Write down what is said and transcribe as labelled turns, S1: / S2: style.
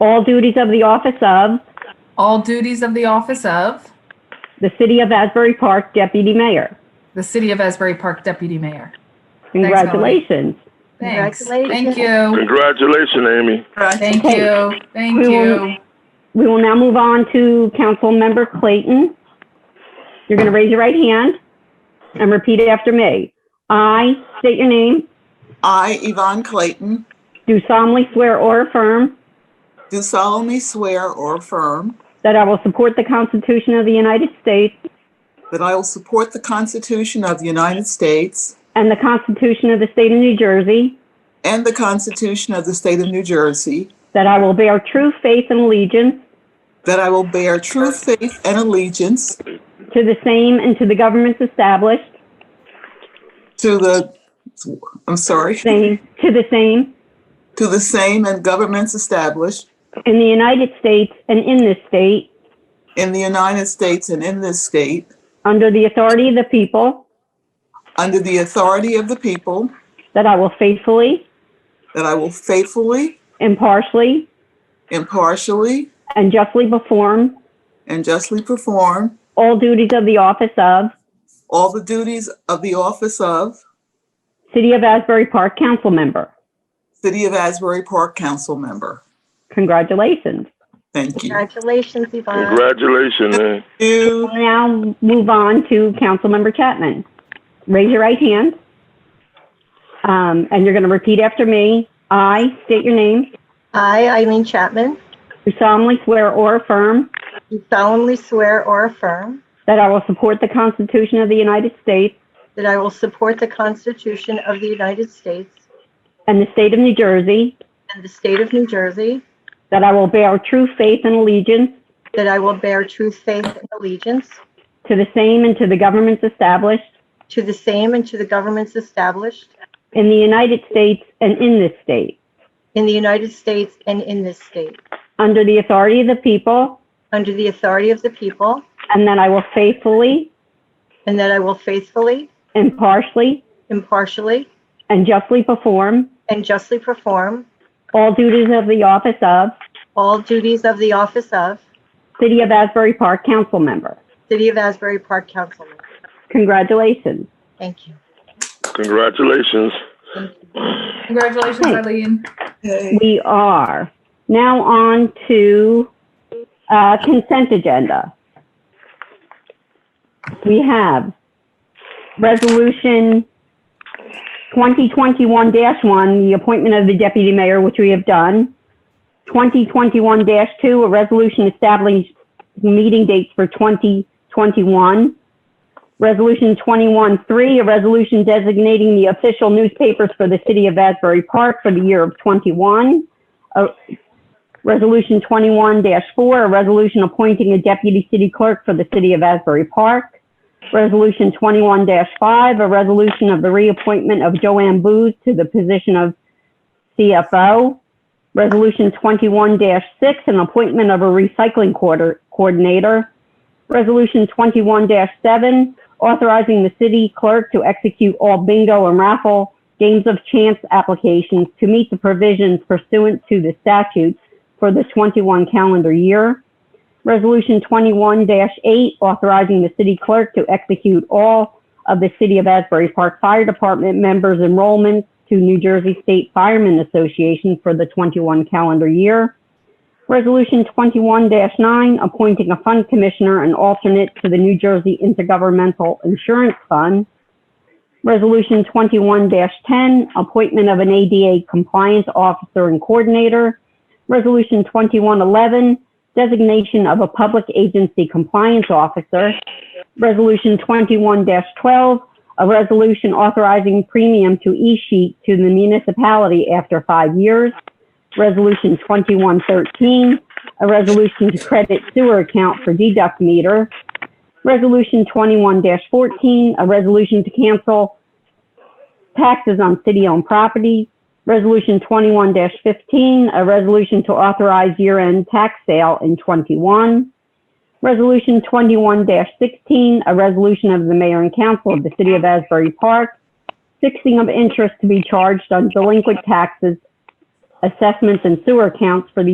S1: all duties of the office of
S2: all duties of the office of
S1: the City of Asbury Park Deputy Mayor.
S2: the City of Asbury Park Deputy Mayor. Thanks, Ellen.
S1: Congratulations.
S2: Thanks.
S3: Congratulations.
S2: Thank you.
S4: Congratulations, Amy.
S2: Thank you. Thank
S1: We
S2: you.
S1: will- We will now move on to Councilmember Clayton. You're going to raise your right hand and repeat it after me. I state your name,
S5: I, Yvonne Clayton,
S1: do solemnly swear or affirm
S5: do solemnly swear or affirm
S1: that I will support the Constitution of the United States
S5: that I will support the Constitution of the United States
S1: and the Constitution of the State of New Jersey,
S5: and the Constitution of the State of New Jersey,
S1: that I will bear true faith and allegiance
S5: that I will bear true faith and allegiance
S1: to the same and to the governments established,
S5: to the, I'm sorry,
S1: same, to the same,
S5: to the same and governments established
S1: in the United States and in this state,
S5: in the United States and in this state,
S1: under the authority of the people,
S5: under the authority of the people,
S1: that I will faithfully,
S5: that I will faithfully,
S1: impartially,
S5: impartially,
S1: and justly perform
S5: and justly perform
S1: all duties of the office of
S5: all the duties of the office of
S1: City of Asbury Park Council Member.
S5: City of Asbury Park Council Member.
S1: Congratulations.
S5: Thank you.
S3: Congratulations, Yvonne.
S4: Congratulations, man.
S5: You,
S1: We'll Now move on to Councilmember Chapman. Raise your right hand. Um, and you're going to repeat after me. I state your name,
S3: I, Eileen Chapman,
S1: do solemnly swear or affirm
S3: do solemnly swear or affirm
S1: that I will support the Constitution of the United States
S3: that I will support the Constitution of the United States
S1: and the state of New Jersey,
S3: and the state of New Jersey,
S1: that I will bear true faith and allegiance
S3: that I will bear true faith and allegiance
S1: to the same and to the governments established
S3: to the same and to the governments established
S1: in the United States and in this state,
S3: in the United States and in this state,
S1: under the authority of the people,
S3: under the authority of the people,
S1: and that I will faithfully,
S3: and that I will faithfully,
S1: impartially,
S3: impartially,
S1: and justly perform
S3: and justly perform
S1: all duties of the office of
S3: all duties of the office of
S1: City of Asbury Park Council Member.
S3: City of Asbury Park Councilman.
S1: Congratulations.
S3: Thank you.
S4: Congratulations.
S2: Congratulations,
S1: Hey.
S2: Eileen.
S5: Yay.
S1: We are now on to uh, consent agenda. We have Resolution 2021-1, the appointment of the deputy mayor, which we have done. 2021-2, a resolution establishing meeting dates for 2021. Resolution 21-3, a resolution designating the official newspapers for the city of Asbury Park for the year of 21. Uh, Resolution 21-4, a resolution appointing a deputy city clerk for the city of Asbury Park. Resolution 21-5, a resolution of the reappointment of Joanne Booz to the position of CFO. Resolution 21-6, an appointment of a recycling quarter- coordinator. Resolution 21-7, authorizing the city clerk to execute all bingo and raffle games of chance applications to meet the provisions pursuant to the statute for the 21 calendar year. Resolution 21-8, authorizing the city clerk to execute all of the City of Asbury Park Fire Department members' enrollments to New Jersey State Firemen Association for the 21 calendar year. Resolution 21-9, appointing a fund commissioner and alternate to the New Jersey Intergovernmental Insurance Fund. Resolution 21-10, appointment of an ADA compliance officer and coordinator. Resolution 21-11, designation of a public agency compliance officer. Resolution 21-12, a resolution authorizing premium to e-sheet to the municipality after five years. Resolution 2113, a resolution to credit sewer account for deduct meter. Resolution 21-14, a resolution to cancel taxes on city-owned property. Resolution 21-15, a resolution to authorize year-end tax sale in 21. Resolution 21-16, a resolution of the mayor and council of the city of Asbury Park fixing of interest to be charged on delinquent taxes assessments and sewer accounts for the